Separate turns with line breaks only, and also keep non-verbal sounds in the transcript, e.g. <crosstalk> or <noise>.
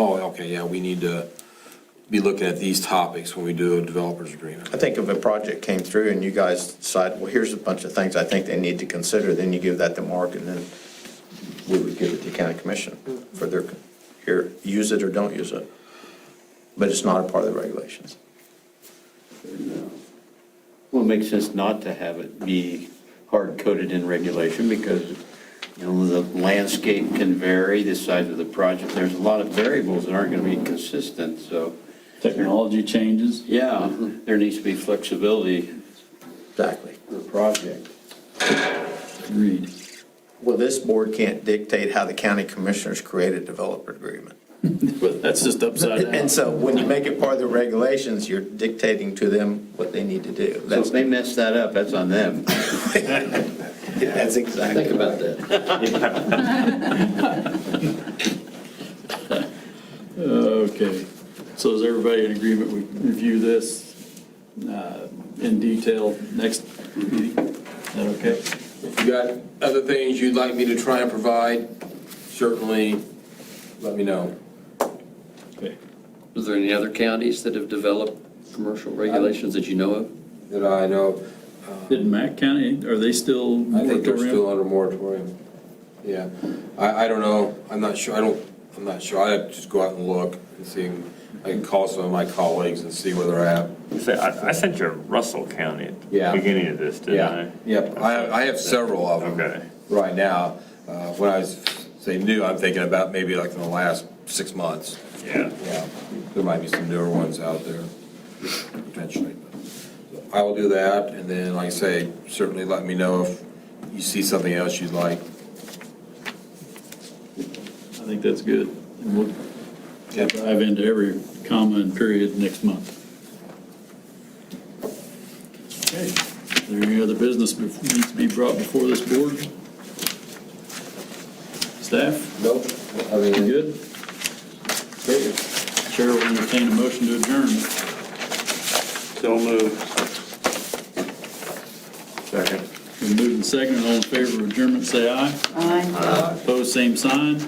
Oh, okay, yeah, we need to be looking at these topics when we do a developers agreement.
I think if a project came through and you guys decide, well, here's a bunch of things I think they need to consider, then you give that to Mark and then we would give it to county commission for their, here, use it or don't use it. But it's not a part of the regulations.
Well, it makes sense not to have it be hard-coded in regulation because, you know, the landscape can vary, the size of the project. There's a lot of variables that aren't going to be consistent, so,
Technology changes.
yeah,
Mm-hmm.
there needs to be flexibility
Exactly.
for the project.
Agreed.
Well, this board can't dictate how the county commissioners create a
<laughs>
developer agreement.
But that's just upside down.
And so when you make it part of the regulations, you're dictating to them what they need to do.
So if
That's,
they mess that up, that's on them.
that's exactly.
Think about
<laughs>
that.
Okay, so is everybody in agreement we review this uh, in detail next meeting? Is that okay?
If you got other things you'd like me to try and provide, certainly let me know.
Okay.
Is there any other counties that have developed commercial regulations that you know of?
That I know,
Did Mack County, are they still
I think they're
moratorium?
still under moratorium. Yeah, I, I don't know, I'm not sure, I don't, I'm not sure, I have to just go out and look and see. I can call some of my colleagues and see where they're at.
Say, I, I sent you Russell County at
Yeah.
the beginning of this, didn't I?
Yep, I, I have several of them.
Okay.
Right now, uh, when I was- say new, I'm thinking about maybe like in the last six months.
Yeah.
Yeah, there might be some newer ones out there potentially. So I will do that, and then, like I say, certainly let me know if you see something else you'd like.
I think that's good. And we'll
Yep.
dive into every comma and period next month. Okay, is there any other business bef- needs to be brought before this board? Staff,
Nope. I mean,
you good? Chair will entertain a motion to adjourn.
So moved. Second.
Been moved and seconded, all in favor of adjournment, say aye.
Aye.
Opposed, same sign.